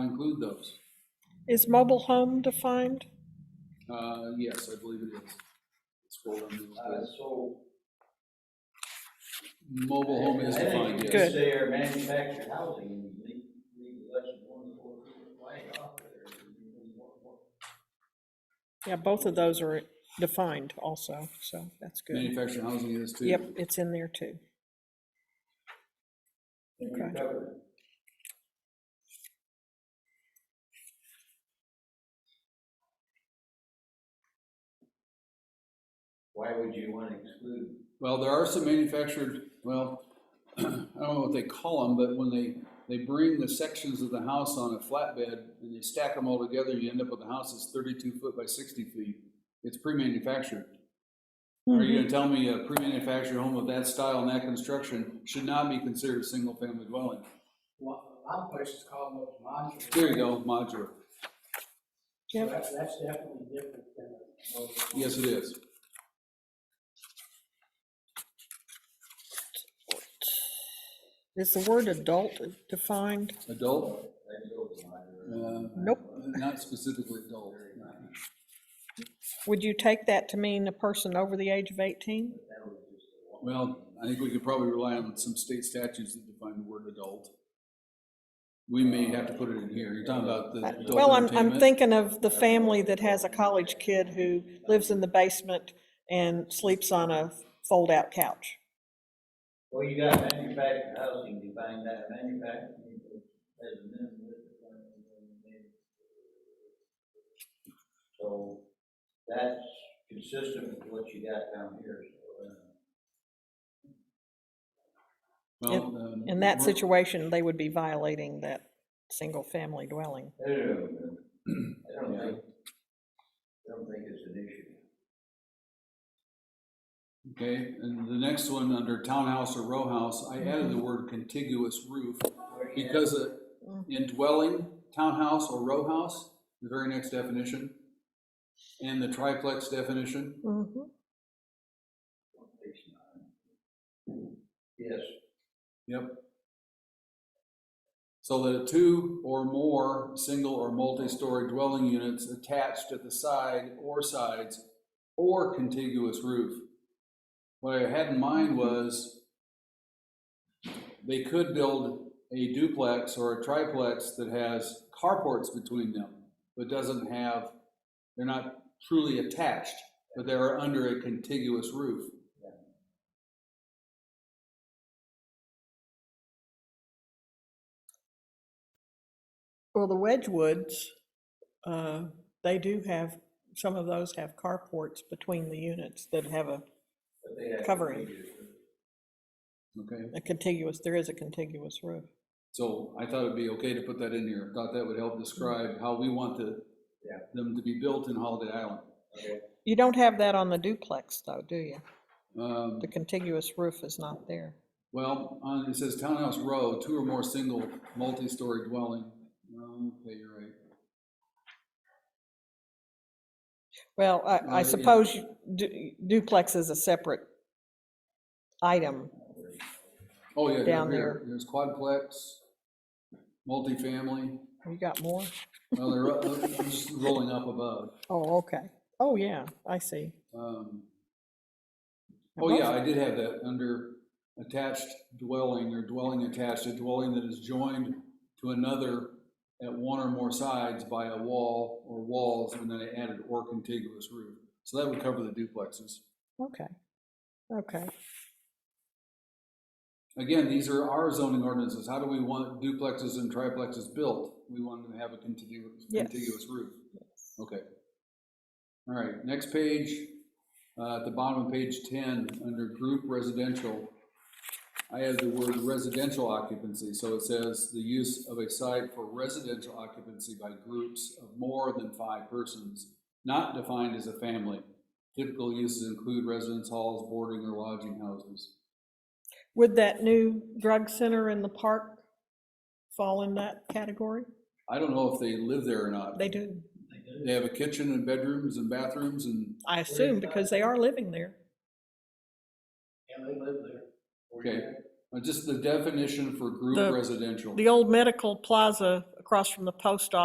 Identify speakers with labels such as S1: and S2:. S1: include those.
S2: Is mobile home defined?
S1: Uh, yes, I believe it is. Scroll down to the
S3: Uh,
S1: list.
S3: so.
S1: Mobile home is
S3: I think
S1: defined,
S3: you
S1: yes.
S3: could
S2: Good.
S3: Say our manufactured housing, and leave, leave election one, four, flag off there. and do one more.
S2: Yeah, both of those are defined also, so that's good.
S1: Manufactured housing is too.
S2: Yep, it's in there too.
S3: And you
S2: Okay.
S3: cover it. Why would you wanna exclude?
S1: Well, there are some manufactured, well, I don't know what they call them, but when they, they bring the sections of the house on a flatbed and they stack them all together, you end up with a house that's thirty-two foot by sixty feet. It's pre-manufactured. Are you gonna tell me a pre-manufactured home of that style and that construction should not be considered a single-family dwelling?
S3: My place is called those modular.
S1: There you go, modular.
S2: Yep.
S3: That's, that's definitely different than.
S1: Yes, it is.
S2: Is the word adult defined?
S1: Adult, uh,
S3: Modular.
S2: Nope.
S1: not specifically adult.
S2: Would you take that to mean a person over the age of 18?
S3: That was just a one.
S1: Well, I think we could probably rely on some state statutes that define the word adult. We may have to put it in here. You're talking about the
S2: Uh, Well,
S1: adult
S2: I'm, I'm
S1: entertainment?
S2: thinking of the family that has a college kid who lives in the basement and sleeps on a fold-out couch.
S3: Well, you got manufactured housing, you find that manufactured, as a minimum. width of one and one meter. So that's consistent with what you got down here, so. uh,
S1: Well, um,
S2: In that
S1: we're-
S2: situation, they would be violating that single-family dwelling.
S3: I don't know. I don't think, I don't think it's an issue.
S1: Okay, and the next one, under townhouse or row house, I added the word contiguous roof because uh,
S2: Mm.
S1: in dwelling, townhouse or row house, the very next definition, and the triplex definition,
S2: Mhm.
S3: It's not. Yes,
S1: Yep. So that two or more single or multi-story dwelling units attached at the side or sides or contiguous roof. What I had in mind was they could build a duplex or a triplex that has carports between them, but doesn't have, they're not truly attached, but they are under a contiguous roof.
S2: Well, the Wedgewoods, uh, they do have, some of those have carports between the units that have a
S3: but they have.
S2: Covering.
S1: Okay?
S2: a contiguous, there is a contiguous roof.
S1: So I thought it'd be okay to put that in here, thought that would help describe how we want the,
S3: Yeah.
S1: them to be built in Holiday Island.
S3: Okay.
S2: You don't have that on the duplex though, do you?
S1: Um,
S2: The contiguous roof is not there.
S1: well, on, it says Townhouse Row, two or more single, multi-story dwelling, Um, okay, you're right.
S2: Well,
S1: Well,
S2: I, I
S1: yeah.
S2: suppose you- du- duplex is a separate item.
S1: Oh, yeah,
S2: Down
S1: down
S2: there.
S1: here, there's quadplex, multifamily,
S2: You got more?
S1: well, they're, uh, I'm just rolling up above.
S2: Oh, okay. Oh, yeah, I see.
S1: Um,
S2: Now,
S1: Oh,
S2: both-
S1: yeah, I did have that, under attached dwelling or dwelling attached, a dwelling that is joined to another at one or more sides by a wall or walls, and then I added or contiguous roof. So that would cover the duplexes.
S2: Okay, okay.
S1: Again, these are our zoning ordinances. How do we want duplexes and triplexes built? We want them to have a contiguous,
S2: Yes.
S1: contiguous roof. Okay. All right, next page, uh, at the bottom of page ten, under group residential, I have the word residential occupancy, so it says the use of a site for residential occupancy by groups of more than five persons, not defined as a family. Typical uses include residence halls, boarding or lodging houses.
S2: Would that new drug center in the park fall in that category?
S1: I don't know if they live there or not.
S2: They do,
S1: They have a kitchen and bedrooms and bathrooms and,
S2: I assume, because they are living there.
S3: Yeah, they live there.
S1: okay, Uh, just the definition for group
S2: The-
S1: residential.
S2: The old medical plaza across from the post office